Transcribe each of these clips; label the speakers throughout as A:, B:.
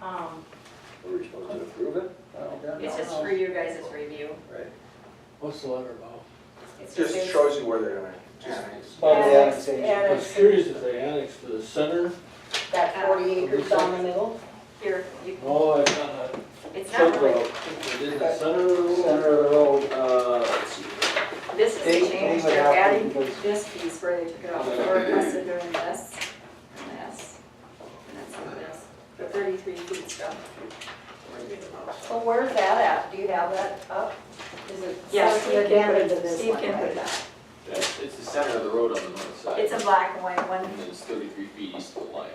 A: Um,
B: just shows you where they're gonna, just,
C: By the
A: Annex,
C: annexation.
A: annex.
D: I was curious if they annexed to the center.
A: That forty acres down the middle,
E: Here, you,
D: Oh, I got a
E: it's not really,
D: circle. They did the center of the road.
C: Center of the road, uh, let's see.
E: this is
C: They-
E: the
C: they
E: change,
C: would
E: they're
C: have to
E: adding
C: because-
E: this piece where they took it off, or requested during this, and this, and that's what it is. The thirty-three feet stuff.
A: so where's that at, do you have that up? Is it?
E: Yeah,
A: Yes,
E: Steve can put it, Steve can put it up.
F: That's, it's the center of the road on the north side.
E: It's a black and white one,
F: And then it's thirty-three feet east of the line.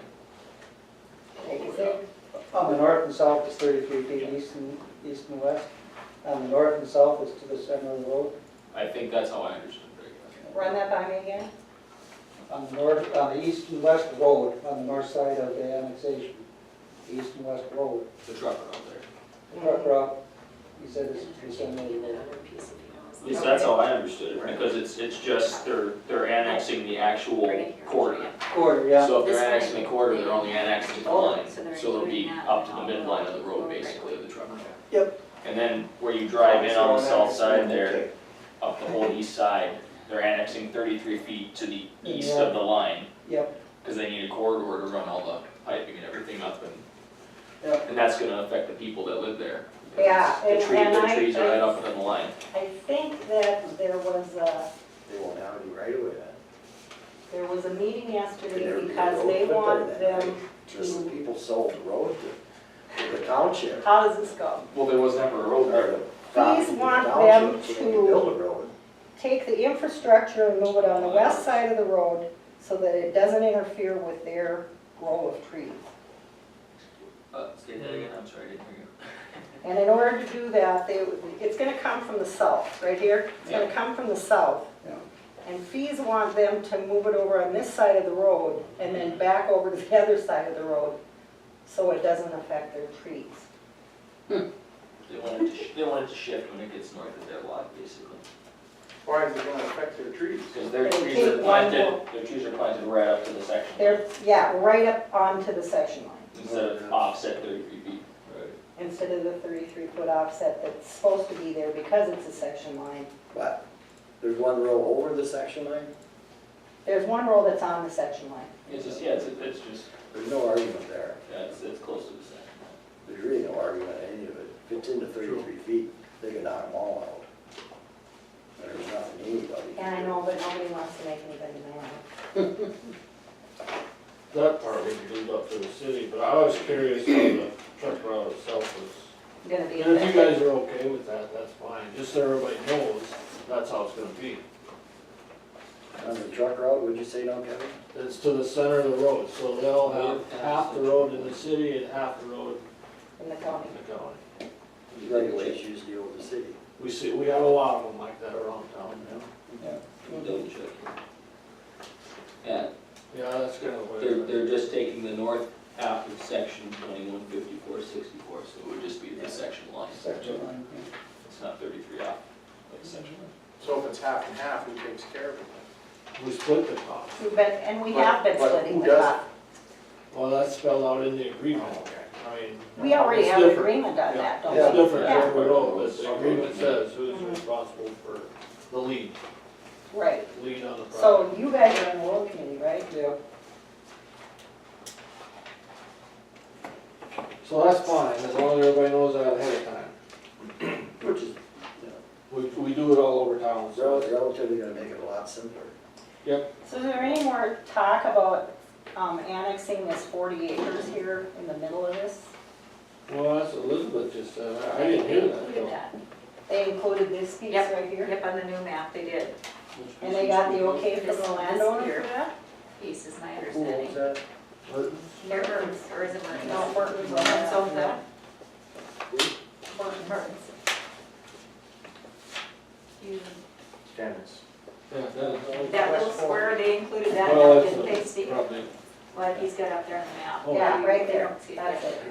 C: On the north and south is thirty-three feet, east and, east and west. On the north and south is to the center of the road.
F: I think that's how I understood it.
A: Run that by me again?
C: On the north, on the east and west road, on the north side of the annexation, the east and west road.
F: The truck road there.
A: Mm-hmm.
C: Truck route, he said it's to the center of the
E: even
C: road.
E: another piece of it.
G: Yes, that's how I understood it, because it's, it's just, they're, they're annexing the actual corridor.
C: Quarter, yeah.
F: So if
E: This
F: they're
E: one.
F: annexing the corridor, they're only annexing the
E: Oh,
F: line,
E: so
F: so
E: they're
F: it'll be
E: including that
F: up to
E: in all
F: the midline of the road,
E: the-
F: basically, of the truck road.
G: And then where you drive in on the south side there, up the whole east side, they're annexing thirty-three feet to the east of the line.
C: Yep.
F: Because they need a corridor to run all the piping and everything up and.
C: Yep.
F: And that's gonna affect the people that live there.
A: Yeah,
F: The
A: and-
F: tree,
A: and
F: the
A: I-
F: trees are right up in the line.
A: I think that there was a,
H: They won't have any right away then.
A: there was a meeting
H: Could never
A: yesterday
H: be a
A: because
H: road
A: they
H: put there
A: want
H: that
A: them
H: night. Just the
A: to,
H: people sold the road to, to the township.
A: how does this go?
F: Well, there was never a road
H: or
F: there.
H: the property to the
A: want
H: township,
A: them
H: so they can
A: to-
H: Build a road.
A: take the infrastructure and move it on the west side of the road so that it doesn't interfere with their grow of trees.
F: Uh, state that again, I'm sorry, I didn't hear you.
A: And in order to do that, they, it's gonna come from the south, right here, it's gonna come from the south.
C: Yeah.
A: And fees want them to move it over on this side of the road and then back over to the other side of the road, so it doesn't affect their trees.
F: They want it to, sh- they want it to shift when it gets north of their lot, basically,
B: why is it gonna affect their trees?
F: because their
A: They
F: trees are
A: take one
F: planted, their trees are planted right up to the section.
A: They're, yeah, right up onto the section line,
F: Instead of offset thirty-three feet. Right.
A: instead of the thirty-three foot offset that's supposed to be there because it's a section line.
H: But there's one row over the section line,
A: There's one row that's on the section line.
F: It's just, yeah, it's, it's just,
H: there's no argument there.
F: yeah, it's, it's close to the section.
H: There's really no argument in any of it. If it's into thirty-three feet, they can knock them all out. And There's nothing anybody. can
A: And I
H: do.
A: know, but nobody wants to make anybody mad.
D: That part we could leave up to the city, but I was curious how the truck route itself was.
A: Gonna be
D: And if you
A: affected.
D: guys are okay with that, that's fine, just so everybody knows, that's how it's gonna be.
H: On the truck route, would you say, no, Kevin?
D: It's to the center of the road, so they'll have half the road in the city and half the road
A: in the county.
D: in the county.
H: Regulations deal with the city.
D: We see, we have a lot of them like that around town now.
F: Double check. Yeah,
D: Yeah, that's kind of
F: they're,
D: weird.
F: they're just taking the north half of section twenty-one fifty-four sixty-four, so it would just be the section line.
C: Section line, yeah.
F: It's not thirty-three off, but the section line.
B: So if it's half and half, who takes care of it?
D: We split the cost.
A: We've been, and we have been
B: But- but
A: splitting the
B: who does
A: cost.
D: Well, that's spelled out in the agreement. I mean.
A: We already
D: it's
A: have an
D: different.
A: agreement on
D: Yeah,
A: that, don't
D: It's
A: we?
D: different
A: Yeah.
D: every road, but the agreement says who's responsible for the lead,
A: Right.
D: lead on the project.
A: So you guys are in the road committee, right?
C: Yeah,
D: So that's fine, as long as everybody knows that ahead of time.
H: Which is
D: We, we do it all over town, so.
H: rel- relatively gonna make it a lot simpler.
A: So is there any more talk about um, annexing this 40 acres here in the middle of this?
D: Well, that's what Elizabeth just said, I- I didn't hear that.
E: Look
D: so.
E: at
A: They included this piece
E: Yep.
A: right
E: that.
A: here?
E: Yep, on the new map, they did.
A: And they got the okay from
E: This- this
A: the landowner
E: here.
A: for that?
E: Piece is my
H: Who owns
E: understanding.
H: that?
E: They're Burns, or is it
A: No,
E: Mertens?
A: Horton's on
E: Mertens
A: that.
E: owns that?
A: Horton, Horton.
E: Mertens. You-
B: Dennis.
D: Yeah, that-
E: That little square, they included that,
D: Well,
E: in
D: that's
E: didn't
D: a-
E: they, Steve?
D: Probably.
E: What he's got up there on the map.
D: Oh.
A: Yeah, right
E: You
A: there,
E: don't see it
A: that's it.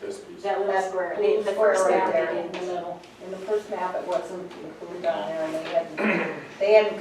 B: This piece.
E: That little
A: That's
E: square,
A: Little
E: the
A: square
E: first
A: right
E: map
A: there
E: they
A: In
E: did.
A: the middle, in the first map, it wasn't included on there, and they hadn't, they hadn't